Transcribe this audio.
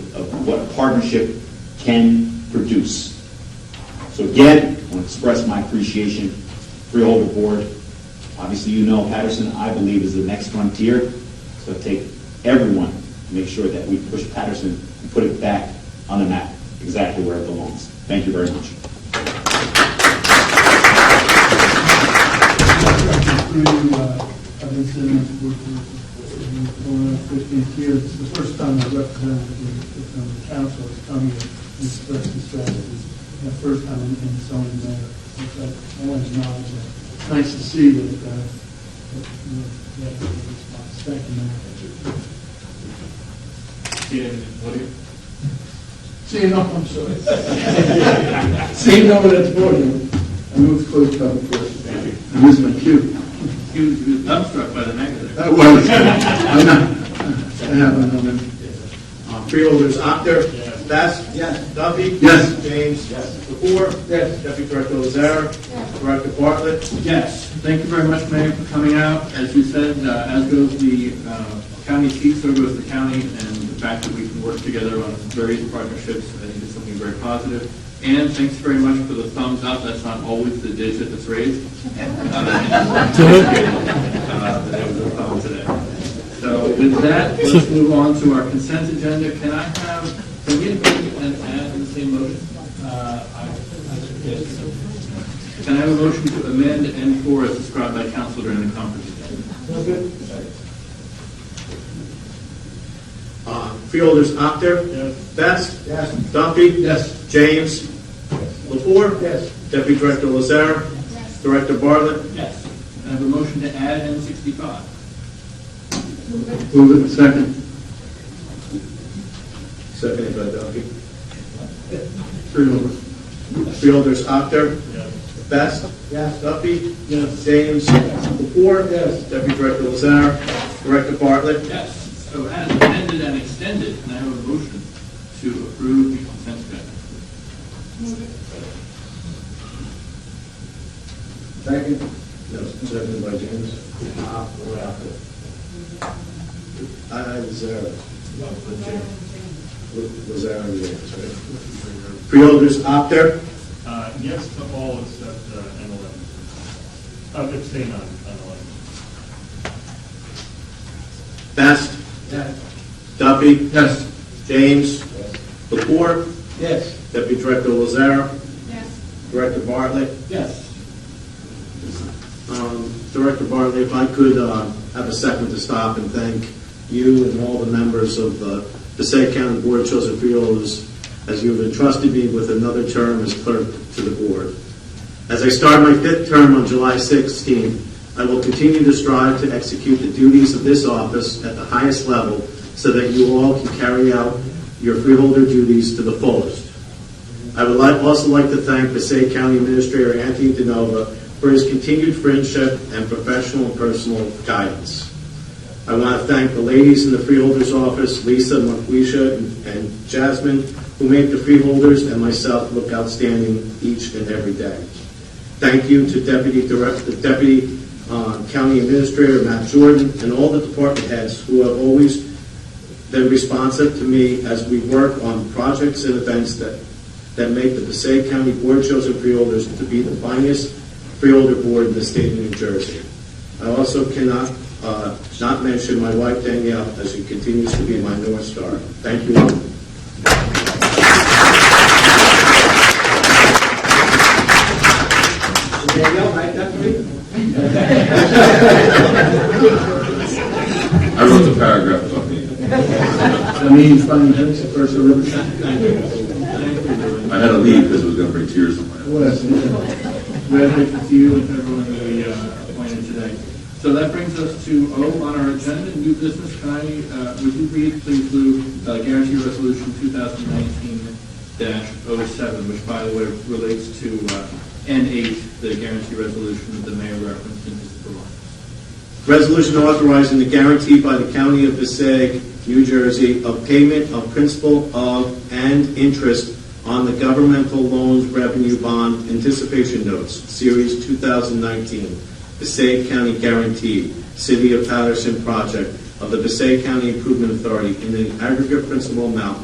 what a partnership can produce. So again, I want to express my appreciation, Freeholder Board. Obviously, you know Patterson, I believe, is the next frontier. So take everyone, to make sure that we push Patterson and put it back on the map, exactly where it belongs. Thank you very much. Through you, uh, I've been sitting on the board for over 15 years. It's the first time I represented the from the council, is coming and expressing strategies. The first time in in zoning matter. So I want to acknowledge that. It's Nice to see that, uh, that, you know, that response. Thank you, Mayor. See you, no, I'm sorry. See you, no, that's board. I move to close public portion. Thank you. Ms. McHugh. He was he was dumbstruck by the negative. That was, I'm not, I have another. Uh, Freeholders, Actor. Yes. Best. Yes. Duffy. Yes. James. Yes. Lepore. Yes. Deputy Director Lazare. Yes. Director Bartlett. Yes. Thank you very much, Mayor, for coming out. As you said, uh, as goes the uh, county seat, so goes the county, and the fact that we can work together on various partnerships, I think is something very positive. And thanks very much for the thumbs up. That's not always the dish that's raised. Uh, That was a thumbs today. So with that, let's move on to our consent agenda. Can I have, can we agree and add in the same motion? Can I have a motion to amend N four as described by council during the conference? Uh, Freeholders, Actor. Yes. Best. Yes. Duffy. Yes. James. Lepore. Yes. Deputy Director Lazare. Yes. Director Bartlett. Yes. Can I have a motion to add N sixty-five? Move it, second. Seconded by Duffy. Three over. Freeholders, Actor. Best. Yes. Duffy. Yes. James. Lepore. Yes. Deputy Director Lazar. Director Bartlett. Yes. So as amended and extended, can I have a motion to approve the consent agenda? Second. Ah, Yes, seconded by James. I, Lazar. Lazar and James, right? Freeholders, Actor. Uh, Yes to all except uh, N11. I'm abstaining on on 11. Best. Yes. Duffy. Yes. James. Lepore. Yes. Deputy Director Lazar. Yes, Director Bartlett. Yes. Um, Director Bartlett, if I could uh, have a second to stop and thank you and all the members of uh, the Passaic County Board of Chosen Freeholders as you have entrusted me with another term as clerk to the board. As I start my fifth term on July 16, I will continue to strive to execute the duties of this office at the highest level so that you all can carry out your freeholder duties to the fullest. I would like, also like to thank Passaic County Administrator Anthony DeNova for his continued friendship and professional and personal guidance. I want to thank the ladies in the Freeholders Office, Lisa, Marquisha, and Jasmine, who make the Freeholders and myself look outstanding each and every day. Thank you to Deputy Director, Deputy uh, County Administrator Matt Jordan, and all the department heads who have always been responsive to me as we work on projects and events that, that make the Passaic County Board of Chosen Freeholders to be the finest freeholder board in the state of New Jersey. I also cannot, uh, not mention my wife Danielle as she continues to be my North Star. Thank you all. I wrote the paragraph about me. I mean, five minutes, first over. I had to leave because it was going to bring tears to my eyes. Yes. Congratulations to you and to everyone that we uh, appointed today. So that brings us to O on our agenda, new business. Can I, uh, would you read, please, Lou, uh, guarantee resolution 2019-07, which by the way relates to uh, N8, the guarantee resolution that the mayor referenced in his remarks. Resolution authorizing the guarantee by the County of Passaic, New Jersey, of payment of principal of and interest on the governmental loans revenue bond anticipation notes, Series 2019, Passaic County Guarantee, City of Patterson Project of the Passaic County Improvement Authority in an aggregate principal amount